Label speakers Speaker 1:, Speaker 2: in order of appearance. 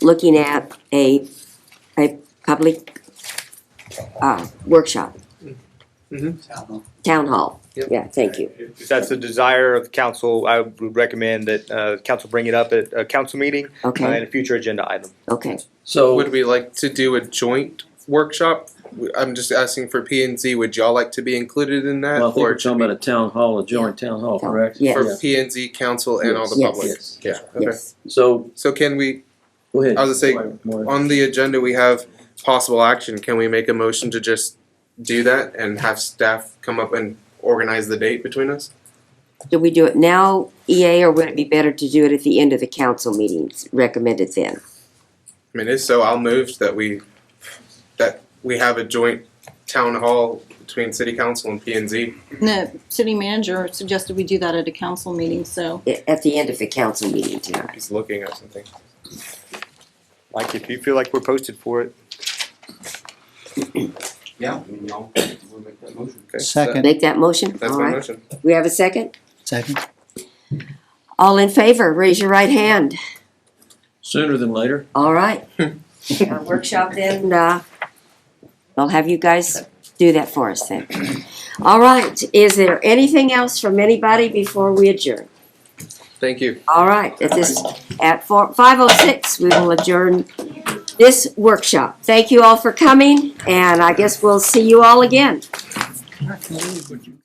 Speaker 1: looking at a, a public, uh, workshop,
Speaker 2: Town hall.
Speaker 1: town hall.
Speaker 2: Yep.
Speaker 1: Yeah, thank you.
Speaker 3: If that's the desire of council, I would recommend that uh, council bring it up at a council meeting uh,
Speaker 1: Okay,
Speaker 3: and a future agenda item.
Speaker 1: okay.
Speaker 2: So,
Speaker 4: Would we like to do a joint workshop? I'm just asking for P and Z. Would y'all like to be included in that?
Speaker 5: Well, I think
Speaker 4: Or
Speaker 5: we're talking about a town hall, a joint town hall, correct?
Speaker 1: Yeah.
Speaker 4: for P and Z council and all the
Speaker 1: Yes.
Speaker 4: public?
Speaker 5: Yes.
Speaker 4: Yeah. Okay.
Speaker 1: Yes,
Speaker 5: So,
Speaker 4: So can we,
Speaker 5: go ahead.
Speaker 4: I was gonna
Speaker 5: Maureen.
Speaker 4: on the agenda, we have possible action. Can we make a motion to just do that and have staff come up and organize the date between us?
Speaker 1: do we do it now, EA, or would it be better to do it at the end of the council meetings, recommended then?
Speaker 4: I mean, if so, I'll move that we, that we have a joint town hall between city council and P and Z.
Speaker 6: The city manager suggested we do that at a council meeting, so
Speaker 1: A- At the end of the council meeting tonight?
Speaker 4: He's looking at something.
Speaker 3: Like, if you feel like we're posted for it,
Speaker 2: yeah, I mean, y'all, we'll make that motion.
Speaker 4: Okay.
Speaker 7: Second.
Speaker 1: Make that motion?
Speaker 4: That's
Speaker 1: All
Speaker 4: my
Speaker 1: right.
Speaker 4: motion.
Speaker 1: We have a second?
Speaker 7: Second.
Speaker 1: All in favor, raise your right hand.
Speaker 5: Sooner than later.
Speaker 1: All right. Uh, Workshop then, uh, I'll have you guys do that for us then. All right, is there anything else from anybody before we adjourn?
Speaker 4: Thank you.
Speaker 1: All right, at this, at four, five oh six, we will adjourn this workshop. Thank you all for coming, and I guess we'll see you all again.
Speaker 7: I can't believe what you